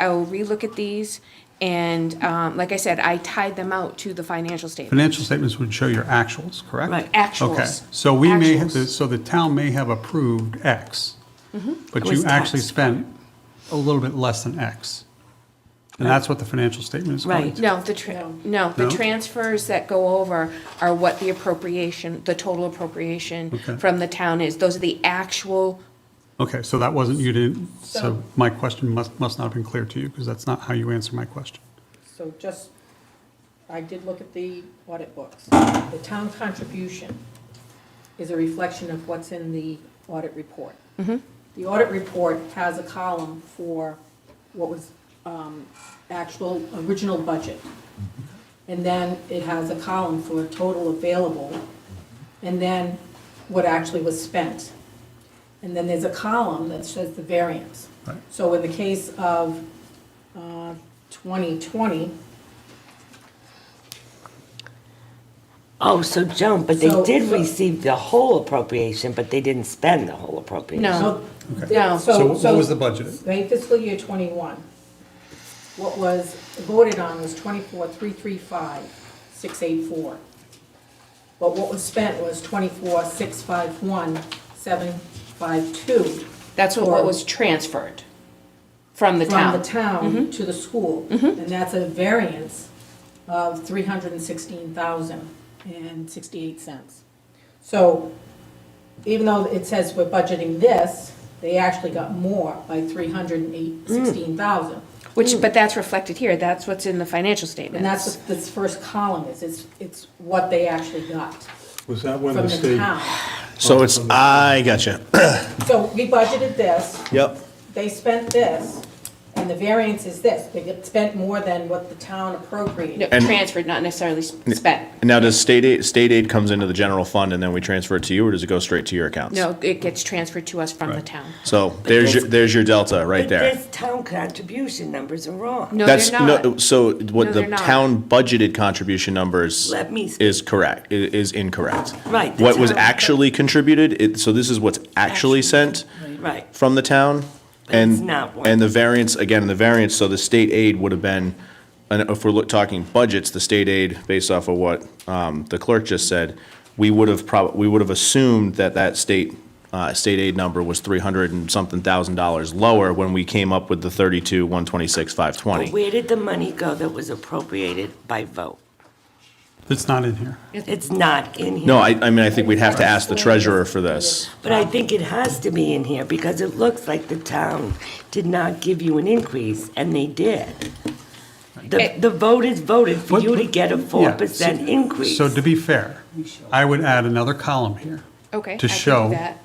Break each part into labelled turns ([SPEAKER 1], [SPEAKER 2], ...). [SPEAKER 1] I will relook at these, and um, like I said, I tied them out to the financial statement.
[SPEAKER 2] Financial statements would show your actuals, correct?
[SPEAKER 3] Right.
[SPEAKER 1] Actuals.
[SPEAKER 2] Okay, so we may, have
[SPEAKER 1] Actuals.
[SPEAKER 2] so the town may have approved X, but
[SPEAKER 3] Mm-hmm. was
[SPEAKER 2] you actually
[SPEAKER 3] taxed.
[SPEAKER 2] spent a little bit less than X. And that's what the financial statement is going
[SPEAKER 3] Right.
[SPEAKER 2] to.
[SPEAKER 1] No, the, tra- no, the
[SPEAKER 2] No?
[SPEAKER 1] transfers that go over are what the appropriation, the total appropriation
[SPEAKER 2] Okay.
[SPEAKER 1] from the town is. Those are the actual,
[SPEAKER 2] Okay, so that wasn't, you didn't, so my question must, must not have been clear to you, because that's not how you answer my question.
[SPEAKER 4] So just, I did look at the audit books. The town contribution is a reflection of what's in the audit report. The audit report has a column for what was um, actual, original budget. And then it has a column for total available, and then what actually was spent. And then there's a column that says the variance.
[SPEAKER 2] Right.
[SPEAKER 4] So in the case of uh, 2020,
[SPEAKER 3] Oh, so Joan, but they
[SPEAKER 4] So-
[SPEAKER 3] did
[SPEAKER 4] so-
[SPEAKER 3] receive the whole appropriation, but they didn't spend the whole appropriation.
[SPEAKER 1] no,
[SPEAKER 4] so.
[SPEAKER 1] no.
[SPEAKER 2] So what was the budget?
[SPEAKER 4] Right, fiscal year '21, what was voted on was 24,335,684. But what was spent was 24,651,752
[SPEAKER 1] That's what what was transferred from the
[SPEAKER 4] from the
[SPEAKER 1] town.
[SPEAKER 4] town to the school. And that's a variance of 316,068 cents. So even though it says we're budgeting this, they actually got more by 316,000.
[SPEAKER 1] Which, but that's reflected here. That's what's in the financial statement.
[SPEAKER 4] And that's what this first column is, it's, it's what they actually got
[SPEAKER 5] Was that when
[SPEAKER 4] from
[SPEAKER 5] the
[SPEAKER 4] the
[SPEAKER 5] state?
[SPEAKER 4] town.
[SPEAKER 6] So it's, I gotcha.
[SPEAKER 4] So we budgeted this,
[SPEAKER 6] Yep.
[SPEAKER 4] they spent this, and the variance is this. They spent more than what the town appropriated.
[SPEAKER 1] No,
[SPEAKER 6] And-
[SPEAKER 1] Transferred, not necessarily s- spent.
[SPEAKER 6] And Now, does state aid, state aid comes into the general fund and then we transfer it to you, or does it go straight to your accounts?
[SPEAKER 1] No, it gets transferred to us from the town.
[SPEAKER 6] So there's your, there's your delta right
[SPEAKER 3] But
[SPEAKER 6] there.
[SPEAKER 3] this town contribution numbers are wrong.
[SPEAKER 1] No,
[SPEAKER 6] That's,
[SPEAKER 1] they're not.
[SPEAKER 6] no, so
[SPEAKER 1] No,
[SPEAKER 6] what the
[SPEAKER 1] they're not.
[SPEAKER 6] town budgeted contribution numbers
[SPEAKER 3] Let me speak.
[SPEAKER 6] is correct, i- is incorrect.
[SPEAKER 3] Right, the
[SPEAKER 6] What was
[SPEAKER 3] town-
[SPEAKER 6] actually contributed, it, so this is what's actually sent
[SPEAKER 3] Right,
[SPEAKER 6] from the town. And,
[SPEAKER 3] it's not one.
[SPEAKER 6] and the variance, again, the variance, so the state aid would have been, and if we're look, talking budgets, the state aid, based off of what, um, the clerk just said, we would have prob, we would have assumed that that state, uh, state aid number was three hundred and something thousand dollars lower when we came up with the thirty-two, one twenty-six, five twenty.
[SPEAKER 3] Where did the money go that was appropriated by vote?
[SPEAKER 2] It's not in here.
[SPEAKER 3] It's not in here.
[SPEAKER 6] No, I, I mean, I think we'd have to ask the treasurer for this.
[SPEAKER 3] But I think it has to be in here because it looks like the town did not give you an increase, and they did. The, the voters voted for
[SPEAKER 2] But-
[SPEAKER 3] you to get a
[SPEAKER 2] but- yeah,
[SPEAKER 3] four percent
[SPEAKER 2] so-
[SPEAKER 3] increase.
[SPEAKER 2] So to be fair, I would add another column here.
[SPEAKER 1] Okay, I
[SPEAKER 2] To
[SPEAKER 1] can do
[SPEAKER 2] show
[SPEAKER 1] that.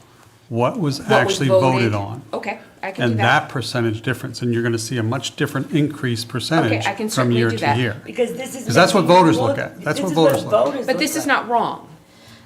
[SPEAKER 2] what was
[SPEAKER 1] What was
[SPEAKER 2] actually voted on.
[SPEAKER 3] Oh,
[SPEAKER 1] Okay, I can do
[SPEAKER 2] And
[SPEAKER 1] that.
[SPEAKER 2] that percentage difference, and you're going to see a much different increase percentage
[SPEAKER 1] I can
[SPEAKER 2] from
[SPEAKER 1] certainly
[SPEAKER 2] year
[SPEAKER 1] do
[SPEAKER 2] to
[SPEAKER 1] that.
[SPEAKER 2] year.
[SPEAKER 3] Because this is.
[SPEAKER 2] Because that's what
[SPEAKER 3] making
[SPEAKER 2] voters
[SPEAKER 3] people-
[SPEAKER 2] look at. That's
[SPEAKER 3] this
[SPEAKER 2] what
[SPEAKER 3] is
[SPEAKER 2] voters look at.
[SPEAKER 3] voters
[SPEAKER 1] But
[SPEAKER 3] look
[SPEAKER 1] this is
[SPEAKER 3] at.
[SPEAKER 1] not wrong.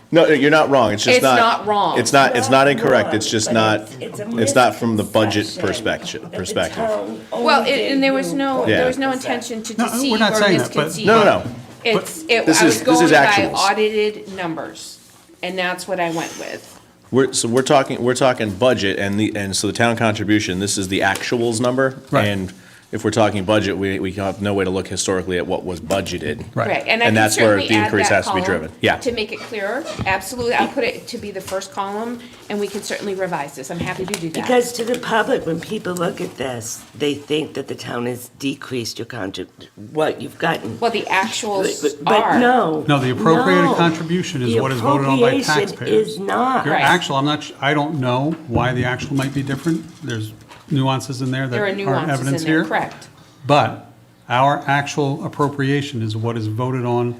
[SPEAKER 6] No, no, you're not wrong, it's just
[SPEAKER 1] It's
[SPEAKER 6] not.
[SPEAKER 1] not wrong.
[SPEAKER 6] It's not, it's not incorrect,
[SPEAKER 3] wrong,
[SPEAKER 6] it's just
[SPEAKER 3] but
[SPEAKER 6] not,
[SPEAKER 3] it's a
[SPEAKER 6] it's not from the budget
[SPEAKER 3] misconception
[SPEAKER 6] perspective,
[SPEAKER 3] that the
[SPEAKER 6] perspective.
[SPEAKER 3] town only
[SPEAKER 1] Well, it- and there was
[SPEAKER 3] gave
[SPEAKER 1] no,
[SPEAKER 3] you
[SPEAKER 1] there was no
[SPEAKER 3] 4%.
[SPEAKER 1] intention to
[SPEAKER 2] No, we're
[SPEAKER 1] deceive
[SPEAKER 2] not
[SPEAKER 1] or
[SPEAKER 2] saying that, but-
[SPEAKER 1] misconceive.
[SPEAKER 6] No, no, no.
[SPEAKER 1] It's, it,
[SPEAKER 6] This
[SPEAKER 1] I
[SPEAKER 6] is-
[SPEAKER 1] was
[SPEAKER 6] this
[SPEAKER 1] going
[SPEAKER 6] is
[SPEAKER 1] by
[SPEAKER 6] actuals.
[SPEAKER 1] audited numbers, and that's what I went with.
[SPEAKER 6] We're, so we're talking, we're talking budget and the, and so the town contribution, this is the actuals number.
[SPEAKER 2] Right.
[SPEAKER 6] And if we're talking budget, we, we have no way to look historically at what was budgeted.
[SPEAKER 2] Right.
[SPEAKER 1] Right, and I
[SPEAKER 6] And
[SPEAKER 1] can
[SPEAKER 6] that's where
[SPEAKER 1] certainly
[SPEAKER 6] the
[SPEAKER 1] add
[SPEAKER 6] increase
[SPEAKER 1] that
[SPEAKER 6] has to be
[SPEAKER 1] column
[SPEAKER 6] driven. Yeah.
[SPEAKER 1] To make it clearer, absolutely. I'll put it to be the first column, and we can certainly revise this. I'm happy to do that.
[SPEAKER 3] Because to the public, when people look at this, they think that the town has decreased your contrib, what you've gotten.
[SPEAKER 1] Well, the actuals
[SPEAKER 3] But-
[SPEAKER 1] are.
[SPEAKER 3] But no.
[SPEAKER 2] No, the appropriated
[SPEAKER 3] no.
[SPEAKER 2] contribution is
[SPEAKER 3] The
[SPEAKER 2] what is voted on by
[SPEAKER 3] appropriation
[SPEAKER 2] taxpayers.
[SPEAKER 3] is not.
[SPEAKER 2] Your
[SPEAKER 1] Right.
[SPEAKER 2] actual, I'm not, su- I don't know why the actual might be different. There's nuances in there that
[SPEAKER 1] There are
[SPEAKER 2] aren't
[SPEAKER 1] nuances
[SPEAKER 2] evidence
[SPEAKER 1] in there,
[SPEAKER 2] here.
[SPEAKER 1] correct.
[SPEAKER 2] But our actual appropriation is what is voted on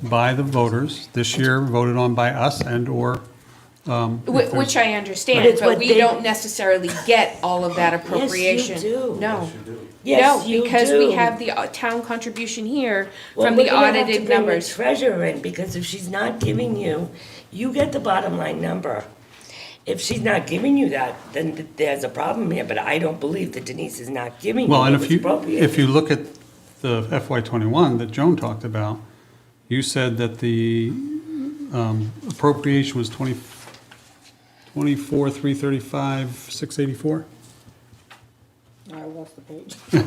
[SPEAKER 2] by the voters, this year voted on by us and/or
[SPEAKER 1] Whi- Which I
[SPEAKER 3] But
[SPEAKER 1] understand,
[SPEAKER 3] it's
[SPEAKER 1] but
[SPEAKER 3] what
[SPEAKER 1] we
[SPEAKER 3] they-
[SPEAKER 1] don't necessarily get all of that appropriation.
[SPEAKER 3] do.
[SPEAKER 1] No.
[SPEAKER 3] Yes, you
[SPEAKER 1] No, because we
[SPEAKER 3] do.
[SPEAKER 1] have the uh, town contribution here
[SPEAKER 3] Well,
[SPEAKER 1] from
[SPEAKER 3] we're
[SPEAKER 1] the
[SPEAKER 3] gonna have to
[SPEAKER 1] audited
[SPEAKER 3] bring the
[SPEAKER 1] numbers.
[SPEAKER 3] Treasurer in, because if she's not giving you, you get the bottom line number. If she's not giving you that, then th- there's a problem here, but I don't believe that Denise is not giving you
[SPEAKER 2] Well,
[SPEAKER 3] what
[SPEAKER 2] and
[SPEAKER 3] was
[SPEAKER 2] if you, if
[SPEAKER 3] appropriated.
[SPEAKER 2] you look at the FY twenty-one that Joan talked about, you said that the um, appropriation was twenty, twenty-four, three thirty-five, six eighty-four?
[SPEAKER 4] I lost the page.